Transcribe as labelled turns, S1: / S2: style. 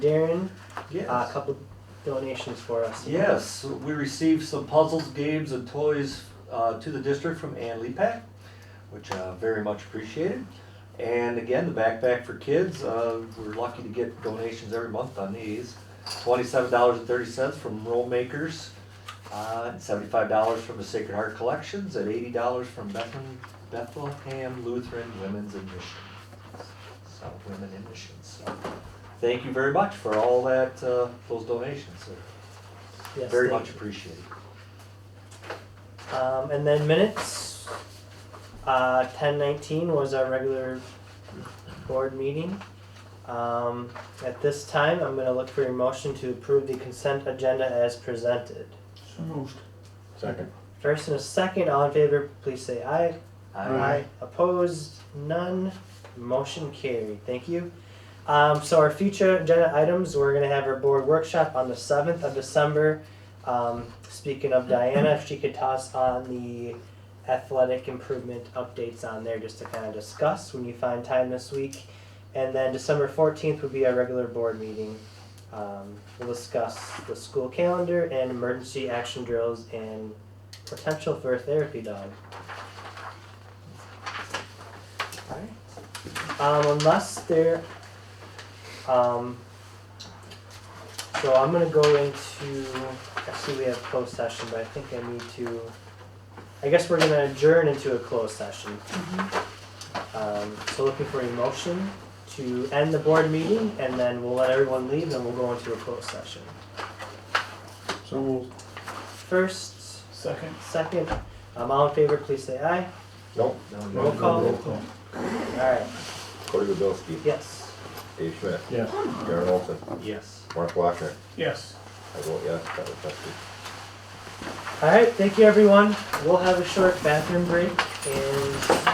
S1: Darren, uh, a
S2: Yes.
S1: couple donations for us.
S2: Yes, we received some puzzles, games, and toys uh, to the district from Ann Lepak, which uh, very much appreciated. And again, the backpack for kids, uh, we're lucky to get donations every month on these. Twenty-seven dollars and thirty cents from Roll Makers, uh, seventy-five dollars from the Sacred Heart Collections, and eighty dollars from Bethlehem, Bethlehem Lutheran Women's in Mission. So, Women in Mission, so, thank you very much for all that, uh, those donations, sir.
S1: Yes,
S2: Very
S1: thank
S2: much appreciated.
S1: you. Um, and then minutes. Uh, ten nineteen was our regular board meeting. Um, at this time, I'm gonna look for your motion to approve the consent agenda as presented.
S3: So moved. Second.
S1: First and a second, all in favor, please say aye.
S2: I,
S3: Aye.
S1: Opposed, none, motion carried, thank you. Um, so our future agenda items, we're gonna have our board workshop on the seventh of December. Um, speaking of Diana, if she could toss on the athletic improvement updates on there just to kind of discuss when you find time this week. And then December fourteenth would be our regular board meeting. Um, we'll discuss the school calendar and emergency action drills and potential for a therapy dog. Um, unless there, um, so I'm gonna go into, actually we have closed session, but I think I need to, I guess we're gonna adjourn into a closed session. Um, so looking for a motion to end the board meeting and then we'll let everyone leave and then we'll go into a closed session.
S3: So moved.
S1: First,
S3: Second.
S1: second, um, all in favor, please say aye.
S4: Nope.
S1: Roll call.
S4: Roll call.
S1: Alright,
S4: Corey Goodowski,
S1: yes.
S4: Dave Schmidt,
S3: Yes.
S4: Darren Olson,
S2: yes.
S4: Mark Wachner,
S3: Yes.
S4: I vote yes, that was tested.
S1: All right, thank you, everyone. We'll have a short bathroom break and